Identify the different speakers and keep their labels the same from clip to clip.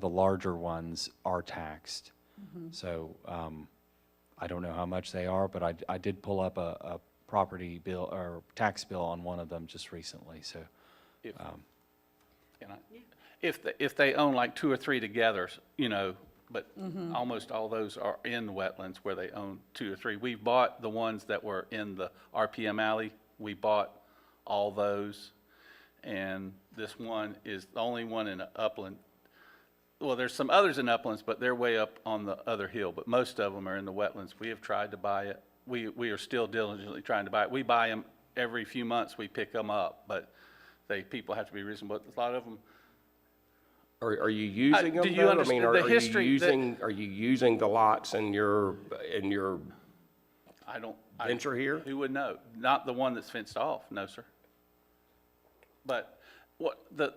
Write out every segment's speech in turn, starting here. Speaker 1: the larger ones are taxed. So um, I don't know how much they are, but I, I did pull up a, a property bill or tax bill on one of them just recently, so.
Speaker 2: If- can I- If, the- if they own like two or three together, you know, but almost all those are in the wetlands where they own two or three. We bought the ones that were in the RPM alley, we bought all those. And this one is the only one in upland. Well, there's some others in uplands, but they're way up on the other hill, but most of them are in the wetlands. We have tried to buy it, we, we are still diligently trying to buy it. We buy them every few months, we pick them up, but they, people have to be reasonable. A lot of them,
Speaker 3: Are, are you using
Speaker 2: Uh, do
Speaker 3: them
Speaker 2: you
Speaker 3: though? I
Speaker 2: understand
Speaker 3: mean, are
Speaker 2: the
Speaker 3: are you
Speaker 2: history that-
Speaker 3: using, are you using the lots in your, in your,
Speaker 2: I don't. I-
Speaker 3: Venture here?
Speaker 2: Who would know? Not the one that's fenced off, no, sir. But what, the,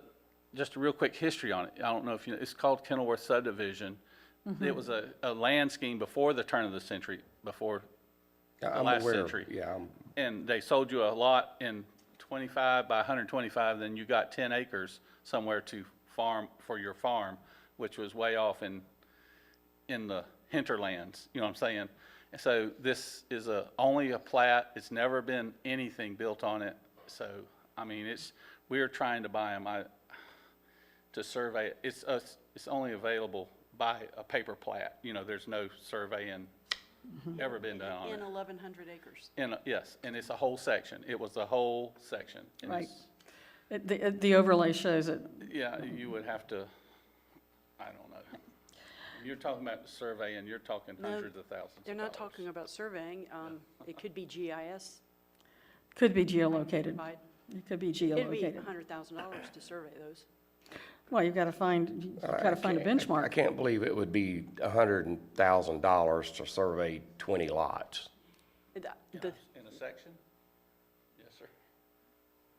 Speaker 2: just a real quick history on it, I don't know if you, it's called Kenilworth subdivision. It was a, a land scheme before the turn of the century, before
Speaker 3: I'm
Speaker 2: last
Speaker 3: aware,
Speaker 2: century.
Speaker 3: yeah, I'm-
Speaker 2: and they sold you a lot in 25 by 125, then you got 10 acres somewhere to farm, for your farm, which was way off in, in the hinterlands, you know what I'm saying? And so this is a, only a plat, it's never been anything built on it, so, I mean, it's, we're trying to buy them, I, to survey, it. it's, us- it's only available by a paper plat, you know, there's no surveying ever been done on it.
Speaker 4: In 1,100 acres.
Speaker 2: And, yes, and it's a whole section. It was a whole section. And
Speaker 5: Right.
Speaker 2: it's-
Speaker 5: It- The it- the overlay shows it.
Speaker 2: Yeah, you would have to, I don't know. You're talking about survey, and you're talking
Speaker 4: No,
Speaker 2: hundreds of thousands of
Speaker 4: They're not
Speaker 2: dollars.
Speaker 4: talking about surveying. um, It could be GIS.
Speaker 5: Could be geolocated.
Speaker 4: It'd
Speaker 5: It could be
Speaker 4: be
Speaker 5: geolocated.
Speaker 4: $100,0and to survey those.
Speaker 5: Well, you've got to find, you've got to find a
Speaker 3: I
Speaker 5: benchmark.
Speaker 3: can't believe it would be a hundred and thousand dollars to survey twenty lots.
Speaker 4: And the- the-
Speaker 2: In a section? Yes, sir.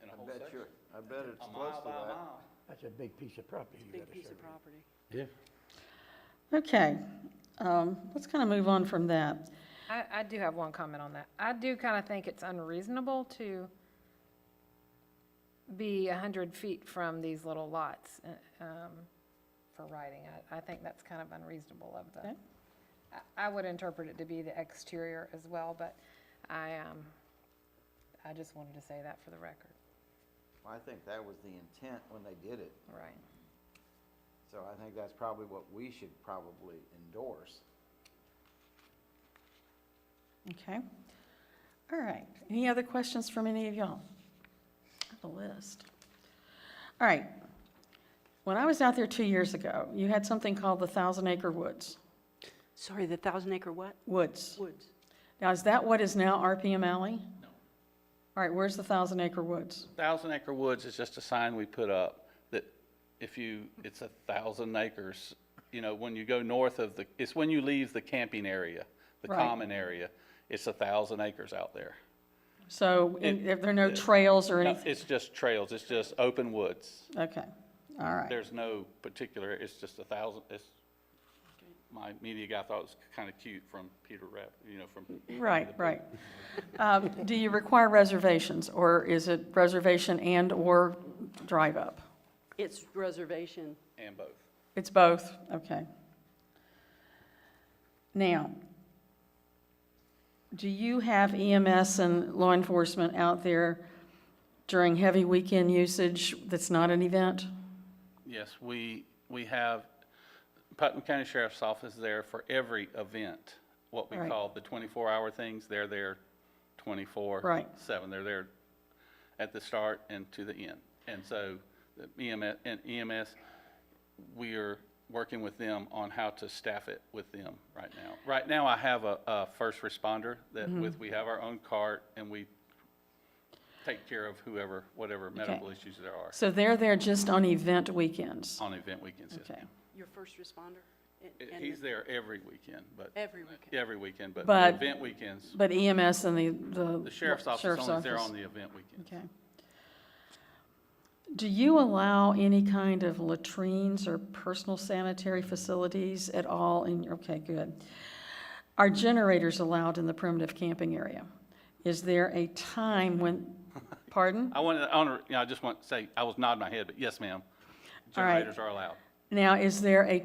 Speaker 2: In a whole
Speaker 6: Bet
Speaker 2: section?
Speaker 6: you, I bet it's
Speaker 2: A mile
Speaker 6: close
Speaker 2: by
Speaker 6: to
Speaker 2: a
Speaker 6: that.
Speaker 2: mile.
Speaker 7: That's a big piece of property you
Speaker 4: Big
Speaker 7: gotta
Speaker 4: piece
Speaker 7: serve.
Speaker 4: of property.
Speaker 5: Okay, um, let's kind of move on from that.
Speaker 8: I, I do have one comment on that. I do kind of think it's unreasonable to be a hundred feet from these little lots, uh, um, for writing. I, I think that's kind of unreasonable of the,
Speaker 5: Okay.
Speaker 8: I, I would interpret it to be the exterior as well, but I, um, I just wanted to say that for the record,
Speaker 6: I think that was the intent when they did it,
Speaker 8: right?
Speaker 6: so I think that's probably what we should probably endorse.
Speaker 5: Okay. All right. Any other questions from any of y'all? I have a list. All right. When I was out there two years ago, you had something called the Thousand Acre Woods.
Speaker 4: Sorry, the 1,000 acre what?
Speaker 5: Woods.
Speaker 4: Woods.
Speaker 5: Now, is that what is now RPM Alley? No. All right, where's the Thousand Acre Woods?
Speaker 2: Thousand Acre Woods is just a sign we put up that if you, it's a thousand acres. You know, when you go north of the, it's when you leave the camping area, the
Speaker 5: Right.
Speaker 2: common area, it's a thousand acres out there.
Speaker 5: So, and if there are no trails or
Speaker 2: No,
Speaker 5: anything?
Speaker 2: It's just trails, it's just open woods.
Speaker 5: Okay, all right.
Speaker 2: There's no particular, it's just a thousand, it's, my media guy thought it was kind of cute from Peter Rapp, you know, from,
Speaker 5: Right, right. Um, Do you require reservations, or is it reservation and/or drive-up?
Speaker 4: It's reservation.
Speaker 2: and both.
Speaker 5: It's both, okay. Now, do you have EMS and law enforcement out there during heavy weekend usage that's not an event?
Speaker 2: Yes, we, we have, Putnam County Sheriff's Office is there for every event, what we
Speaker 5: Right.
Speaker 2: call the twenty-four hour things, they're there twenty-four.
Speaker 5: Right.
Speaker 2: Seven, they're there at the start and to the end. And so the EMS, and EMS, we are working with them on how to staff it with them right now. Right now, I have a, a first responder that
Speaker 5: Mm-hmm.
Speaker 2: with, we have our own cart and we take care of whoever, whatever medical issues there are
Speaker 5: So they're there just on event weekends?
Speaker 2: on event weekends. yes,
Speaker 5: Okay.
Speaker 2: ma'am.
Speaker 4: Your first responder? and-
Speaker 2: It-
Speaker 4: and
Speaker 2: He's there every weekend, but.
Speaker 4: Every weekend.
Speaker 2: Every weekend, but the
Speaker 5: But-
Speaker 2: event weekends,
Speaker 5: But EMS and the, the.
Speaker 2: the sheriff's office
Speaker 5: sheriff's
Speaker 2: only is there
Speaker 5: office.
Speaker 2: on the event weekend.
Speaker 5: Okay. Do you allow any kind of latrines or personal sanitary facilities at all in, your okay, good. Are generators allowed in the primitive camping area? Is there a time when, pardon?
Speaker 2: I wanted, I want to, you know, I just want to say, I was nodding my head, but yes, ma'am.
Speaker 5: All right.
Speaker 2: Generators are allowed.
Speaker 5: Now, is there a